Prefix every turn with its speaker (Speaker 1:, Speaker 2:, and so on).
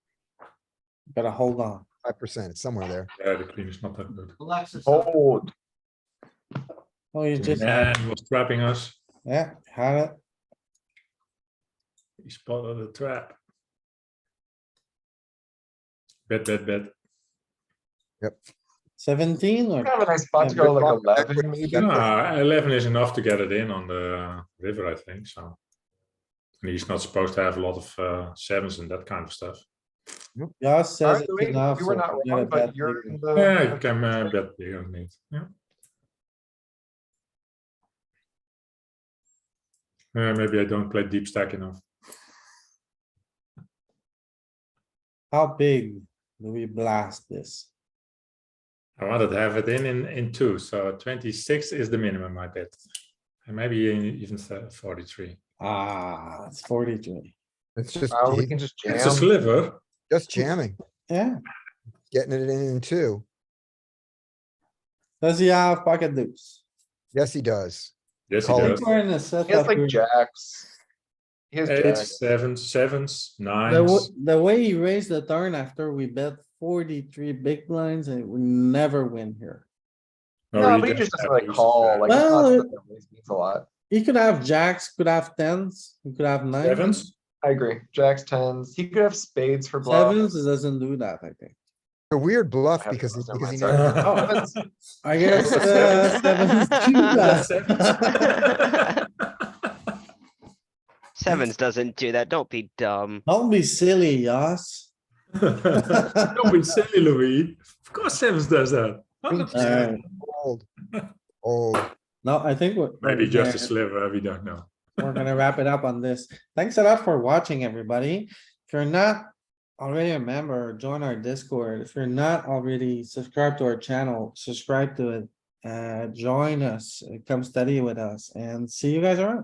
Speaker 1: Gotta hold on.
Speaker 2: Five percent, it's somewhere there.
Speaker 3: Yeah, Uh, the queen is not that good.
Speaker 4: Relaxes.
Speaker 5: Fold.
Speaker 1: Oh, you just,
Speaker 3: And he was trapping us.
Speaker 1: yeah, had it.
Speaker 3: He spotted the trap. Bet, bet, bet.
Speaker 1: Seventeen or
Speaker 5: Kind of a nice spot to
Speaker 1: Yeah,
Speaker 5: go like
Speaker 2: Block back
Speaker 5: eleven,
Speaker 2: with maybe.
Speaker 3: Nah, eleven is enough to get it in on the river, I think, so. And he's not supposed to have a lot of uh, sevens and that kind of stuff.
Speaker 1: Yoss
Speaker 5: All
Speaker 1: says
Speaker 5: right,
Speaker 1: it's
Speaker 5: Louis,
Speaker 1: enough.
Speaker 5: you were
Speaker 1: so
Speaker 5: not
Speaker 1: forget
Speaker 5: wrong,
Speaker 1: about
Speaker 5: but you're
Speaker 1: leaving.
Speaker 5: in
Speaker 2: Oh,
Speaker 5: the.
Speaker 3: Yeah, you can uh, bet big on it, yeah. Uh, maybe I don't play deep stack enough.
Speaker 1: How big do we blast this?
Speaker 3: I wanted to have it in in, in two, so twenty-six is the minimum, I bet. And maybe even th- forty-three.
Speaker 1: Ah, it's forty-three.
Speaker 2: It's just,
Speaker 5: Uh, we
Speaker 2: he-
Speaker 5: can just jam.
Speaker 3: It's a sliver.
Speaker 2: just jamming,
Speaker 1: Yeah,
Speaker 2: getting it in in two.
Speaker 1: does he have pocket deuce?
Speaker 2: Yes, he does.
Speaker 3: Yes, he
Speaker 2: Call
Speaker 1: I
Speaker 2: it.
Speaker 1: think
Speaker 3: does.
Speaker 1: We're in a
Speaker 5: He has
Speaker 1: setup.
Speaker 5: like
Speaker 1: here.
Speaker 5: jacks. He has
Speaker 3: Eights,
Speaker 5: jacks.
Speaker 3: sevens, sevens,
Speaker 1: The,
Speaker 3: nines.
Speaker 1: w- the way he raised the turn after we bet forty-three big blinds and we never win here.
Speaker 3: Oh,
Speaker 5: No, but he just doesn't like call, like, it's
Speaker 1: Well,
Speaker 5: not
Speaker 1: it-
Speaker 5: something that means a lot.
Speaker 1: He could have jacks, could have tens, he could have nines.
Speaker 3: Sevens,
Speaker 5: I agree. Jacks, tens. He could have spades for bluff.
Speaker 1: Sevens it doesn't do that, I think.
Speaker 2: A weird bluff
Speaker 5: have
Speaker 2: because,
Speaker 5: those on
Speaker 2: because
Speaker 5: my
Speaker 2: he
Speaker 5: side.
Speaker 2: knows
Speaker 5: Oh, heavens.
Speaker 1: I guess, uh, sevens do
Speaker 3: Yeah,
Speaker 1: that.
Speaker 3: sevens.
Speaker 6: Sevens doesn't do that. Don't be dumb.
Speaker 1: Don't be silly, Yoss.
Speaker 3: Don't be silly, Louis. Of course sevens does that. 100%.
Speaker 1: Alright.
Speaker 2: old. Old.
Speaker 1: No, I think we're.
Speaker 3: Maybe just a
Speaker 1: we're-
Speaker 3: sliver, we don't know.
Speaker 1: we're gonna wrap it up on this. Thanks a lot for watching, everybody. If you're not already a member, join our Discord. If you're not already subscribed to our channel, subscribe to it. Uh, join us, come study with us and see you guys around.